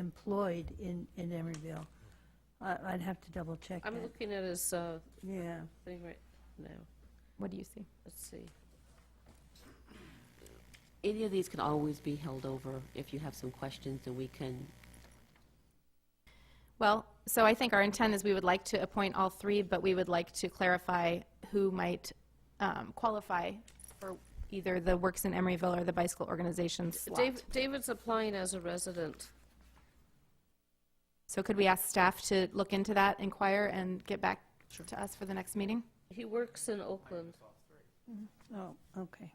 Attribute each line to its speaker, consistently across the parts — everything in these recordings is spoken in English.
Speaker 1: employed in, in Emeryville. I, I'd have to double check
Speaker 2: I'm
Speaker 1: that,
Speaker 2: looking at his uh,
Speaker 1: yeah.
Speaker 2: thing right now.
Speaker 3: What do you see?
Speaker 2: Let's see.
Speaker 4: Any of these can always be held over if you have some questions, and we can,
Speaker 3: Well, so I think our intent is we would like to appoint all three, but we would like to clarify who might um, qualify for either the Works in Emeryville or the Bicycle Organization slot.
Speaker 2: Dave- David's applying as a resident.
Speaker 3: So could we ask staff to look into that, inquire, and get back to us for the next meeting?
Speaker 2: He works in Oakland.
Speaker 1: Oh, okay.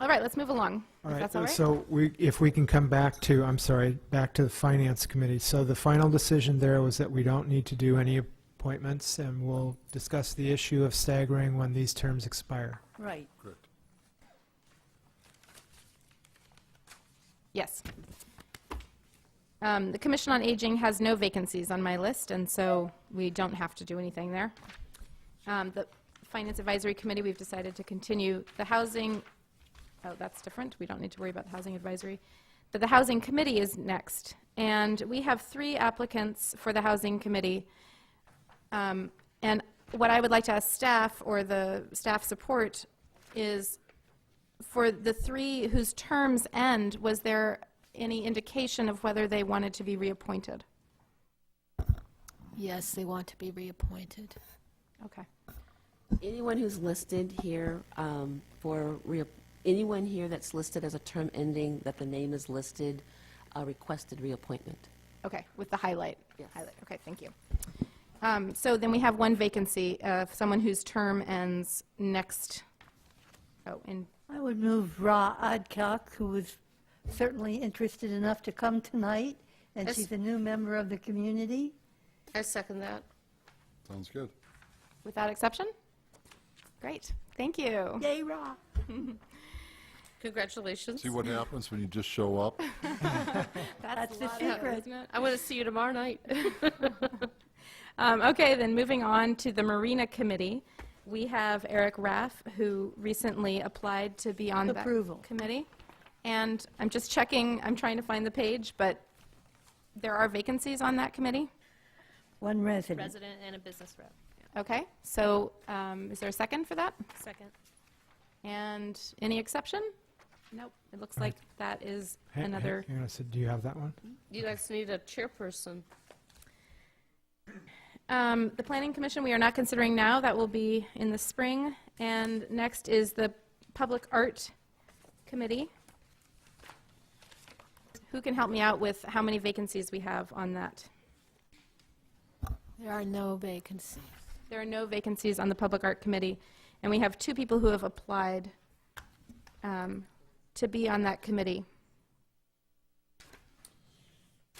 Speaker 3: All right, let's move along.
Speaker 5: All
Speaker 3: If
Speaker 5: right,
Speaker 3: that's all right?
Speaker 5: so we, if we can come back to, I'm sorry, back to the Finance Committee. So the final decision there was that we don't need to do any appointments, and we'll discuss the issue of staggering when these terms expire.
Speaker 1: Right,
Speaker 3: Yes. Um, The Commission on Aging has no vacancies on my list, and so we don't have to do anything there. Um, The Finance Advisory Committee, we've decided to continue. The Housing, oh, that's different, we don't need to worry about the Housing Advisory. But the Housing Committee is next, and we have three applicants for the Housing Committee. Um, And what I would like to ask staff, or the staff support, is for the three whose terms end, was there any indication of whether they wanted to be reappointed?
Speaker 6: Yes, they want to be reappointed.
Speaker 3: Okay.
Speaker 4: anyone who's listed here um, for, rea- anyone here that's listed as a term ending, that the name is listed, uh, requested reappointment.
Speaker 3: Okay, with the highlight?
Speaker 4: Yes.
Speaker 3: Highlight, okay, thank you. Um, So then we have one vacancy, uh, someone whose term ends next, oh, in,
Speaker 1: I would move Ra Adcock, who was certainly interested enough to come tonight, and
Speaker 2: Yes.
Speaker 1: she's a new member of the community.
Speaker 2: I second that.
Speaker 7: Sounds good.
Speaker 3: without exception? Great, thank you.
Speaker 1: Yay, Ra!
Speaker 2: Congratulations.
Speaker 7: See what happens when you just show up?
Speaker 1: That's the
Speaker 3: of effort,
Speaker 1: secret.
Speaker 3: isn't it?
Speaker 2: I want to see you tomorrow night.
Speaker 3: Um, Okay, then moving on to the Marina Committee, we have Eric Raff, who recently applied to be on that
Speaker 1: Approval.
Speaker 3: committee. And I'm just checking, I'm trying to find the page, but there are vacancies on that committee?
Speaker 1: One resident.
Speaker 8: resident and a business rep.
Speaker 3: Okay, so um, is there a second for that?
Speaker 8: Second.
Speaker 3: And any exception? Nope, it looks like that is
Speaker 5: Hey- hey,
Speaker 3: another,
Speaker 5: Hang on a sec, do you have that one?
Speaker 2: You guys need a chairperson.
Speaker 3: Um, the Planning Commission, we are not considering now, that will be in the spring. And next is the Public Art Committee. Who can help me out with how many vacancies we have on that?
Speaker 6: There are no vacancies.
Speaker 3: There are no vacancies on the Public Art Committee, and we have two people who have applied um, to be on that committee.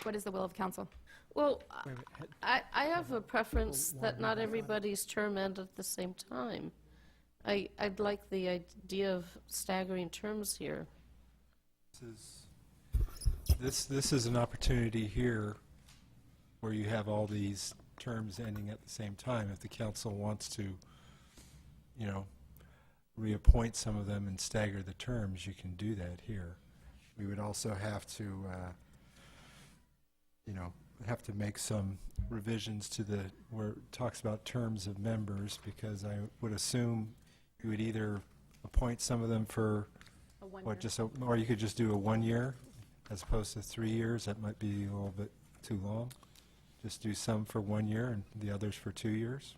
Speaker 3: What is the will of council?
Speaker 2: Well,
Speaker 5: Wait a minute, had-
Speaker 2: I, I have a preference that not everybody's term end at the same time. I, I'd like the idea of staggering terms here.
Speaker 9: This, this is an opportunity here where you have all these terms ending at the same time. If the council wants to, you know, reappoint some of them and stagger the terms, you can do that here. We would also have to, uh, you know, have to make some revisions to the, where it talks about terms of members, because I would assume you would either appoint some of them for what, just, a- or you could just do a one-year as opposed to three years, that might be a little bit too long. Just do some for one year and the others for two years.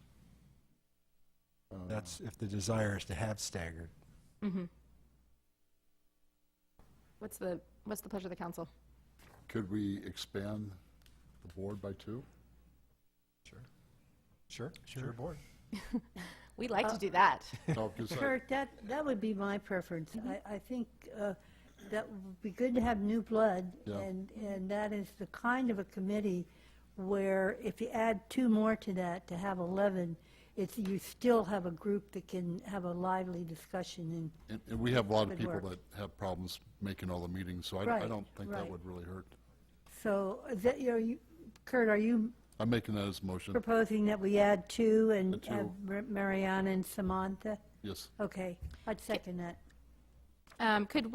Speaker 9: That's if the desire is to have staggered.
Speaker 3: Mhm. What's the, what's the pleasure of the council?
Speaker 7: Could we expand the board by two?
Speaker 9: Sure. Sure, board.
Speaker 3: We like
Speaker 2: Uh,
Speaker 3: to do that.
Speaker 7: No, 'cause I-
Speaker 1: Kurt, that, that would be my preference. I, I think uh, that would be good to have new blood,
Speaker 7: Yeah.
Speaker 1: and, and that is the kind of a committee where if you add two more to that, to have 11, it's, you still have a group that can have a lively discussion,
Speaker 7: And, and we have a lot of
Speaker 1: Good
Speaker 7: people
Speaker 1: work.
Speaker 7: that have problems making all the meetings, so I, I
Speaker 1: Right,
Speaker 7: don't think that
Speaker 1: right.
Speaker 7: would really hurt.
Speaker 1: and so, is that, you know, you- Kurt, are you
Speaker 7: I'm making that as a motion,
Speaker 1: proposing that we add two and
Speaker 7: The
Speaker 1: have
Speaker 7: Mm. two.
Speaker 1: Mar- Mariana and Samantha?
Speaker 7: yes.
Speaker 1: Okay, I'd second that.
Speaker 3: Um, Could